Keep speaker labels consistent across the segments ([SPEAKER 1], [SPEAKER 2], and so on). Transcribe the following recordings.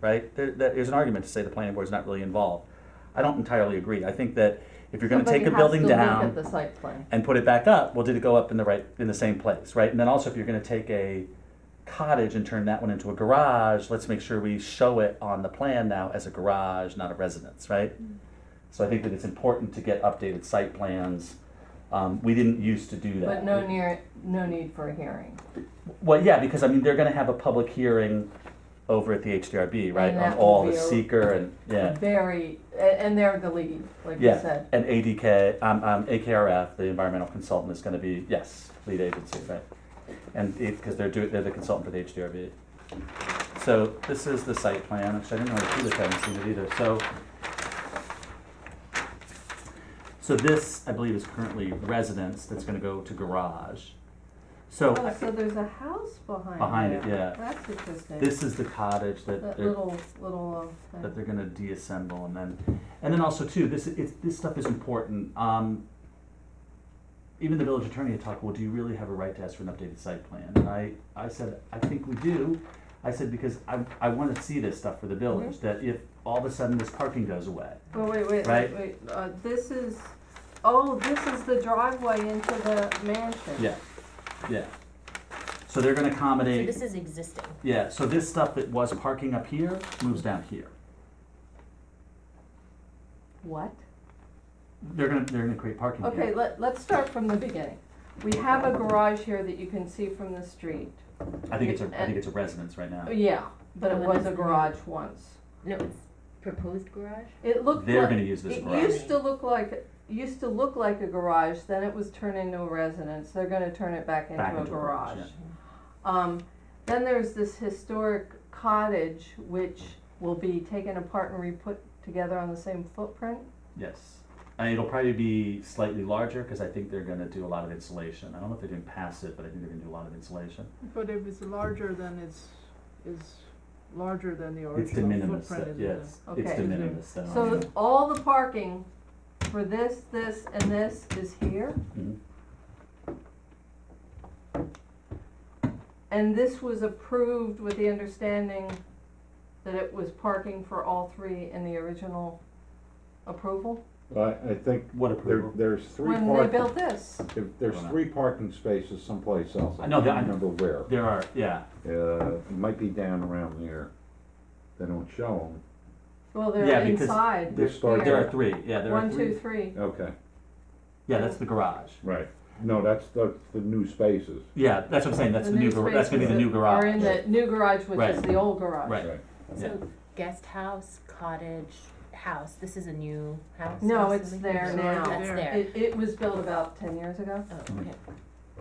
[SPEAKER 1] right? There, that- there's an argument to say the planning board's not really involved. I don't entirely agree. I think that if you're gonna
[SPEAKER 2] Somebody
[SPEAKER 1] take a
[SPEAKER 2] has
[SPEAKER 1] building
[SPEAKER 2] to look
[SPEAKER 1] down
[SPEAKER 2] at the site plan.
[SPEAKER 1] and put it back up, well, did it go up in the right, in the same place, right? And then also, if you're gonna take a cottage and turn that one into a garage, let's make sure we show it on the plan now as a garage, not a residence, right?
[SPEAKER 2] Mm.
[SPEAKER 1] So I think that it's important to get updated site plans. Um, we didn't used to do that.
[SPEAKER 2] But no near, no need for a hearing.
[SPEAKER 1] Well, yeah, because I mean, they're gonna have a public hearing over at the HDRB, right?
[SPEAKER 2] And
[SPEAKER 1] On
[SPEAKER 2] that
[SPEAKER 1] all
[SPEAKER 2] will
[SPEAKER 1] the
[SPEAKER 2] be a-
[SPEAKER 1] seeker and, yeah,
[SPEAKER 2] Very, a- and they're the lead, like you
[SPEAKER 1] Yeah.
[SPEAKER 2] said.
[SPEAKER 1] and ADK, um, um, AKRF, the environmental consultant is gonna be, yes, lead agency, right? And it, cause they're doing, they're the consultant for the HDRB. So this is the site plan, which I didn't know if you haven't seen it either, so. So this, I believe, is currently residence that's gonna go to garage. So
[SPEAKER 2] Oh, so there's a house behind it.
[SPEAKER 1] Behind it, yeah.
[SPEAKER 2] That's interesting.
[SPEAKER 1] this is the cottage that
[SPEAKER 2] That
[SPEAKER 1] they're
[SPEAKER 2] little, little, uh,
[SPEAKER 1] that
[SPEAKER 2] thing.
[SPEAKER 1] they're gonna deassemble and then, and then also too, this, it's, this stuff is important. Um, even the village attorney had talked, well, do you really have a right to ask for an updated site plan? And I, I said, I think we do. I said, because I, I wanna see this stuff for the
[SPEAKER 2] Mm-hmm.
[SPEAKER 1] village, that if all of a sudden this parking goes away.
[SPEAKER 2] oh, wait, wait, wait,
[SPEAKER 1] Right.
[SPEAKER 2] wait, uh, this is, oh, this is the driveway into the mansion.
[SPEAKER 1] Yeah, yeah. So they're gonna
[SPEAKER 3] So
[SPEAKER 1] accommodate,
[SPEAKER 3] this is existing.
[SPEAKER 1] yeah, so this stuff that was parking up here moves down here.
[SPEAKER 2] What?
[SPEAKER 1] They're gonna, they're gonna create parking here.
[SPEAKER 2] Okay, let, let's start from the beginning. We have a garage here that you can see from the street.
[SPEAKER 1] I think it's a, I think it's a residence right now.
[SPEAKER 2] Yeah, but it
[SPEAKER 3] Oh, and
[SPEAKER 2] was
[SPEAKER 3] it's
[SPEAKER 2] a
[SPEAKER 3] not.
[SPEAKER 2] garage once.
[SPEAKER 3] No, it's proposed garage?
[SPEAKER 2] It looked
[SPEAKER 1] They're
[SPEAKER 2] like,
[SPEAKER 1] gonna use this
[SPEAKER 2] it
[SPEAKER 1] garage.
[SPEAKER 2] used to look like, used to look like a garage, then it was turned into a residence. They're gonna turn it back into
[SPEAKER 1] Back
[SPEAKER 2] a
[SPEAKER 1] into a garage,
[SPEAKER 2] garage. Um, then there's this historic cottage which will be taken apart and re-put together on the same footprint.
[SPEAKER 1] Yes. And it'll probably be slightly larger because I think they're gonna do a lot of insulation. I don't know if they're doing passive, but I think they're gonna do a lot of insulation.
[SPEAKER 4] But if it's larger, then it's, is larger than the
[SPEAKER 1] It's de
[SPEAKER 4] original
[SPEAKER 1] minimis,
[SPEAKER 4] footprint,
[SPEAKER 1] that-
[SPEAKER 4] isn't it?
[SPEAKER 1] yes, it's
[SPEAKER 2] Okay.
[SPEAKER 1] de minimis. that
[SPEAKER 2] So
[SPEAKER 1] I'm-
[SPEAKER 2] all the parking for this, this, and this is here?
[SPEAKER 1] Mhm.
[SPEAKER 2] And this was approved with the understanding that it was parking for all three in the original approval?
[SPEAKER 5] I, I think
[SPEAKER 1] What
[SPEAKER 5] there,
[SPEAKER 1] approval?
[SPEAKER 5] there's three
[SPEAKER 2] When they
[SPEAKER 5] parking,
[SPEAKER 2] built this,
[SPEAKER 5] there's three parking spaces someplace else.
[SPEAKER 1] I know that-
[SPEAKER 5] can't Remember where.
[SPEAKER 1] There are, yeah,
[SPEAKER 5] Uh, it might be down around here. They don't show
[SPEAKER 2] well,
[SPEAKER 1] Yeah,
[SPEAKER 2] they're
[SPEAKER 1] because
[SPEAKER 2] inside,
[SPEAKER 5] They start-
[SPEAKER 1] there are three, yeah, there are
[SPEAKER 2] one, two,
[SPEAKER 1] three.
[SPEAKER 2] three.
[SPEAKER 5] them. Okay,
[SPEAKER 1] Yeah, that's the garage.
[SPEAKER 5] right. No, that's the, the new spaces.
[SPEAKER 1] Yeah, that's what I'm saying, that's the new, gar- that's gonna be the new
[SPEAKER 2] Are in
[SPEAKER 1] garage.
[SPEAKER 2] the new garage, which is
[SPEAKER 1] Right.
[SPEAKER 2] the old garage.
[SPEAKER 1] Right. Yeah.
[SPEAKER 3] So guest house, cottage, house, this is a new house?
[SPEAKER 2] No,
[SPEAKER 3] I'm
[SPEAKER 2] it's
[SPEAKER 3] assuming?
[SPEAKER 2] there
[SPEAKER 3] It's
[SPEAKER 2] now.
[SPEAKER 3] That's
[SPEAKER 4] There.
[SPEAKER 3] there.
[SPEAKER 2] It, it was built about ten years ago.
[SPEAKER 3] Oh,
[SPEAKER 1] Hmm.
[SPEAKER 3] okay.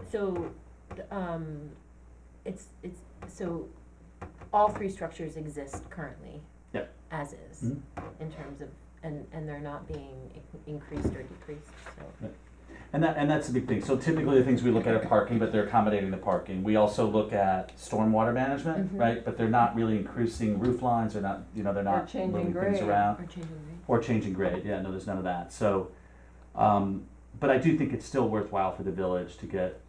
[SPEAKER 3] So, the, um, it's, it's, so all three structures exist currently?
[SPEAKER 1] Yep.
[SPEAKER 3] As is,
[SPEAKER 1] Mhm.
[SPEAKER 3] in terms of, and, and they're not being in- increased or decreased, so.
[SPEAKER 1] And that, and that's the big thing. So typically the things we look at are parking, but they're accommodating the parking. We also look at stormwater management,
[SPEAKER 3] Mhm.
[SPEAKER 1] right? But they're not really increasing roof lines, they're not, you know, they're not
[SPEAKER 2] changing
[SPEAKER 1] moving things
[SPEAKER 2] grade.
[SPEAKER 1] around.
[SPEAKER 3] Or changing rate?
[SPEAKER 1] Or changing grade, yeah, no, there's none of that, so, um, but I do think it's still worthwhile for the village to get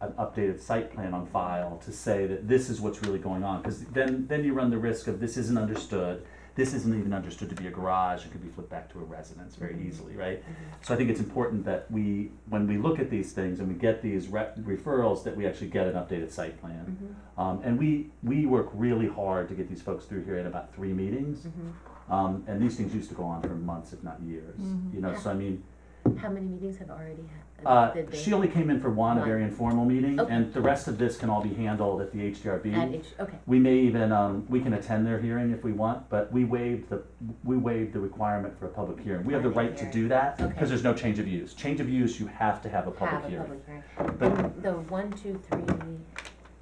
[SPEAKER 1] an updated site plan on file to say that this is what's really going on, cause then, then you run the risk of this isn't understood, this isn't even understood to be a garage, it could be flipped back to a residence very
[SPEAKER 3] Mhm.
[SPEAKER 1] easily, right? So I think it's important that we, when we look at these things and we get these re- referrals, that we actually get an updated site plan.
[SPEAKER 3] Mhm.
[SPEAKER 1] Um, and we, we work really hard to get these folks through here in about three meetings.
[SPEAKER 3] Mhm.
[SPEAKER 2] Mm-hmm.
[SPEAKER 1] Um, and these things used to go on for months, if not years.
[SPEAKER 3] Mm-hmm.
[SPEAKER 2] Mhm.
[SPEAKER 1] You know, so I mean,
[SPEAKER 3] How many meetings have already happened?
[SPEAKER 1] uh,
[SPEAKER 3] Did they-
[SPEAKER 1] she only came in for one, a very informal meeting,
[SPEAKER 3] Okay.
[SPEAKER 1] and the rest of this can all be handled at the HDRB.
[SPEAKER 3] At each, okay,
[SPEAKER 1] we may even um, we can attend their hearing if we want, but we waived the we waived the requirement for a public hearing. We have the
[SPEAKER 3] Public
[SPEAKER 1] right to
[SPEAKER 3] hearing.
[SPEAKER 1] do that because
[SPEAKER 3] Okay.
[SPEAKER 1] there's no change of use. Change of use, you have to have a public
[SPEAKER 3] have a
[SPEAKER 1] hearing.
[SPEAKER 3] public hearing.
[SPEAKER 1] But-
[SPEAKER 3] And the one, two, three,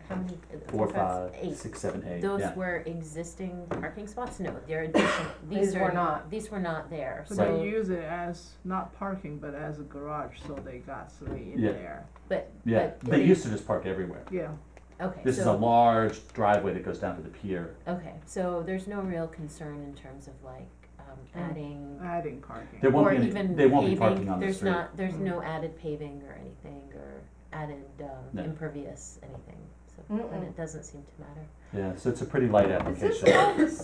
[SPEAKER 3] how many? uh,
[SPEAKER 1] Four,
[SPEAKER 3] five,
[SPEAKER 1] five,
[SPEAKER 3] eight.
[SPEAKER 1] six, seven, eight.
[SPEAKER 3] Those
[SPEAKER 1] yeah.
[SPEAKER 3] were existing parking spots? No, they're additional, these
[SPEAKER 2] These
[SPEAKER 3] are.
[SPEAKER 2] were not.
[SPEAKER 3] These were not there,
[SPEAKER 4] But they
[SPEAKER 3] so,
[SPEAKER 4] use it as, not parking, but as a garage, so they got three in
[SPEAKER 1] Yeah.
[SPEAKER 4] there,
[SPEAKER 3] but,
[SPEAKER 1] yeah,
[SPEAKER 3] but
[SPEAKER 1] they
[SPEAKER 3] it-
[SPEAKER 1] used to just park everywhere.
[SPEAKER 4] yeah.
[SPEAKER 3] okay,
[SPEAKER 1] This is a
[SPEAKER 3] so,
[SPEAKER 1] large driveway that goes down to the pier.
[SPEAKER 3] okay, so there's no real concern in terms of like, um,
[SPEAKER 2] Mm.
[SPEAKER 3] adding.
[SPEAKER 4] adding parking.
[SPEAKER 1] There won't
[SPEAKER 3] Or
[SPEAKER 1] be any,
[SPEAKER 3] even
[SPEAKER 1] they won't be
[SPEAKER 3] paving.
[SPEAKER 1] parking on the
[SPEAKER 3] there's
[SPEAKER 1] street.
[SPEAKER 3] not, there's
[SPEAKER 4] Mm.
[SPEAKER 3] no added paving or anything, or added, um,
[SPEAKER 1] No.
[SPEAKER 3] impervious, anything, so,
[SPEAKER 2] Mm-mm.
[SPEAKER 3] and it doesn't seem to matter.
[SPEAKER 1] Yeah, so it's a pretty light
[SPEAKER 2] Is this
[SPEAKER 1] application.
[SPEAKER 2] all the